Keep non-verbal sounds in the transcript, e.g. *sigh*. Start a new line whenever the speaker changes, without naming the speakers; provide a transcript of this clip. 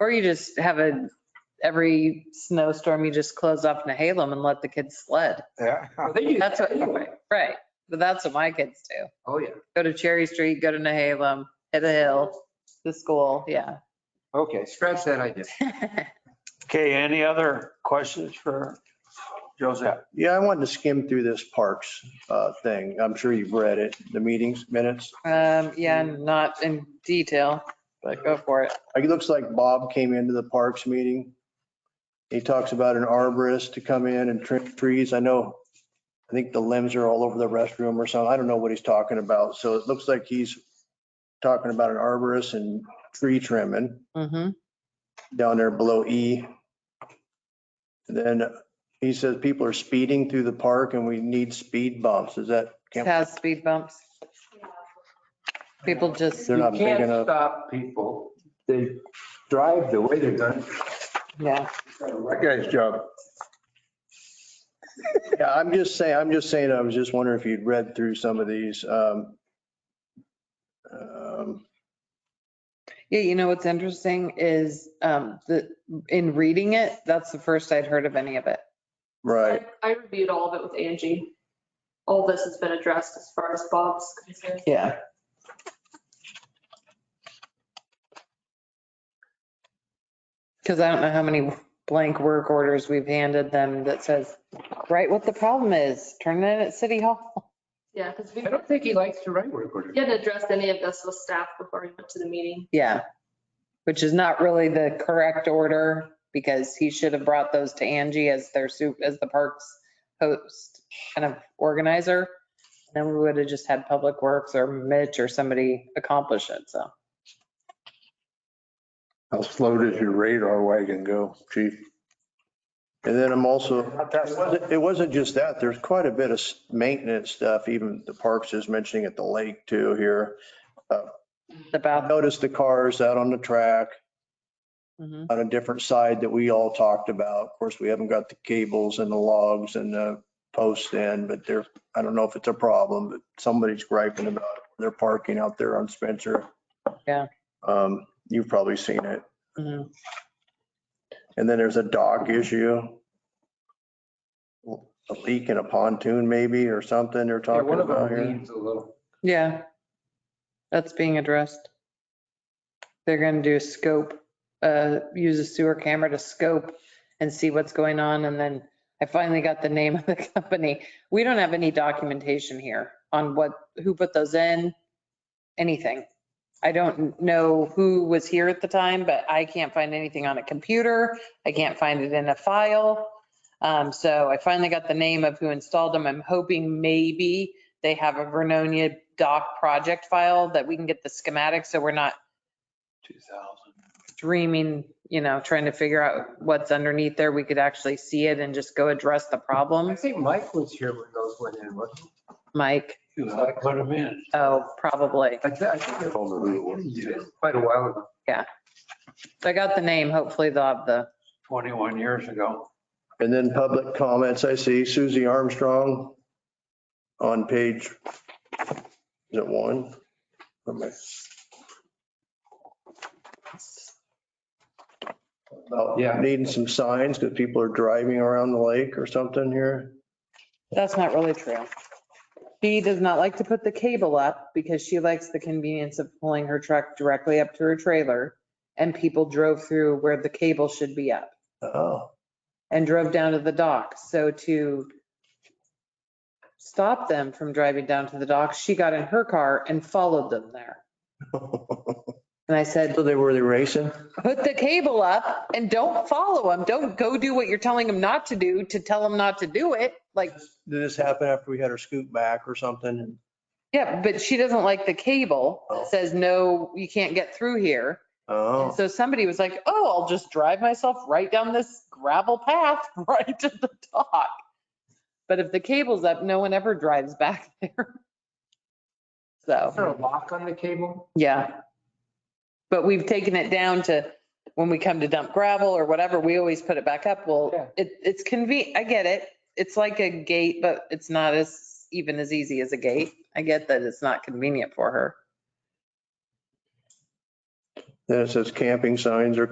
Or you just have a, every snowstorm, you just close off Nahalem and let the kids sled.
Yeah. *laughs*
Oh, They do
That's
that
what-
anyway.
Right. But that's what my kids do.
Oh, yeah.
Go to Cherry Street, go to Nahalem, hit a hill, to school, yeah.
Okay.
*laughs* Scratch that idea.
Okay, any other questions for Joseph?
Yeah, I wanted to skim through this parks uh, thing. I'm sure you've read it, the meetings minutes.
Um, yeah, not in detail, but go for it.
Like, It looks like Bob came into the parks meeting. He talks about an arborist to come in and trim trees. I know, I think the limbs are all over the restroom or something. I don't know what he's talking about. So it looks like he's talking about an arborist and tree trimming
Mm-hmm.
down there below E. And Then he says people are speeding through the park and we need speed bumps. Is that?
It
can't-
has speed bumps. People just,
They're
You
not big
can't
enough.
Stop people. They drive the way they're done.
yeah,
That guy's job.
Yeah, I'm just saying, I'm just saying, I was just wondering if you'd read through some of these. um, um,
yeah, you know what's interesting is, um, the, in reading it, that's the first I'd heard of any of it.
Right,
I reviewed all of it with Angie. All this has been addressed as far as Bob's concerned.
Yeah. Because I don't know how many blank work orders we've handed them that says, write what the problem is, turn it in at City Hall.
Yeah, because we
I don't think he likes to write work orders.
hadn't addressed any of this with staff before we went to the meeting.
Yeah, which is not really the correct order because he should have brought those to Angie as their soup, as the parks host kind of organizer. Then we would have just had Public Works or Mitch or somebody accomplish it, so.
How slow does your radar wagon go, chief?
and then I'm also, it wasn't just that, there's quite a bit of s- maintenance stuff, even the parks is mentioning at the lake too here. I
About,
noticed the cars out on the track
mhm.
on a different side that we all talked about. Of course, we haven't got the cables and the logs and the posts in, but they're, I don't know if it's a problem, but somebody's griping about it. They're parking out there on Spencer.
Yeah.
Um, You've probably seen it.
Mhm.
And then there's a dock issue. A leak in a pontoon maybe or something they're
Yeah,
talking
One of
about
them
here.
leans a little.
Yeah. That's being addressed. They're gonna do a scope, uh, use a sewer camera to scope and see what's going on. And then I finally got the name of the *laughs* company. We don't have any documentation here on what, who put those in, anything. I don't know who was here at the time, but I can't find anything on a computer. I can't find it in a file. Um, so I finally got the name of who installed them. I'm hoping maybe they have a Vernonia doc project file that we can get the schematic, so we're not
2000.
dreaming, you know, trying to figure out what's underneath there. We could actually see it and just go address the
I
problem.
think Mike was here when those went in, wasn't he?
Mike,
I put them in.
oh, probably.
I thi- I think it was quite a while ago.
So I got the name. Hopefully they'll have the,
21 years ago.
And then public comments, I see Susie Armstrong on page, is it one? Or am I-
Yeah.
About Oh, needing some signs because people are driving around the lake or something here.
that's not really true. She does not like to put the cable up because she likes the convenience of pulling her truck directly up to her trailer. And people drove through where the cable should be up.
*laughs* Oh,
and drove down to the dock. So to stop them from driving down to the dock, she got in her car and followed them there. And I said,
so they were, they racing?
put the cable up and don't follow them. Don't go do what you're telling them not to do to tell them not to do it. Like,
Did this happen after we had her scoot back or something?
yeah, but she doesn't like the cable that says, no, you can't get through here. And
Oh,
so somebody was like, oh, I'll just drive myself right down this gravel path *laughs* right to the dock. But if the cable's up, no one ever drives back *laughs* there.
Is there
So,
a lock on the cable?
yeah. But we've taken it down to, when we come to dump gravel or whatever, we always put it back up.
Yeah.
Well, it, it's convenient, I get it. It's like a gate, but it's not as, even as easy as a gate. I get that it's not convenient for her.
then it says camping signs are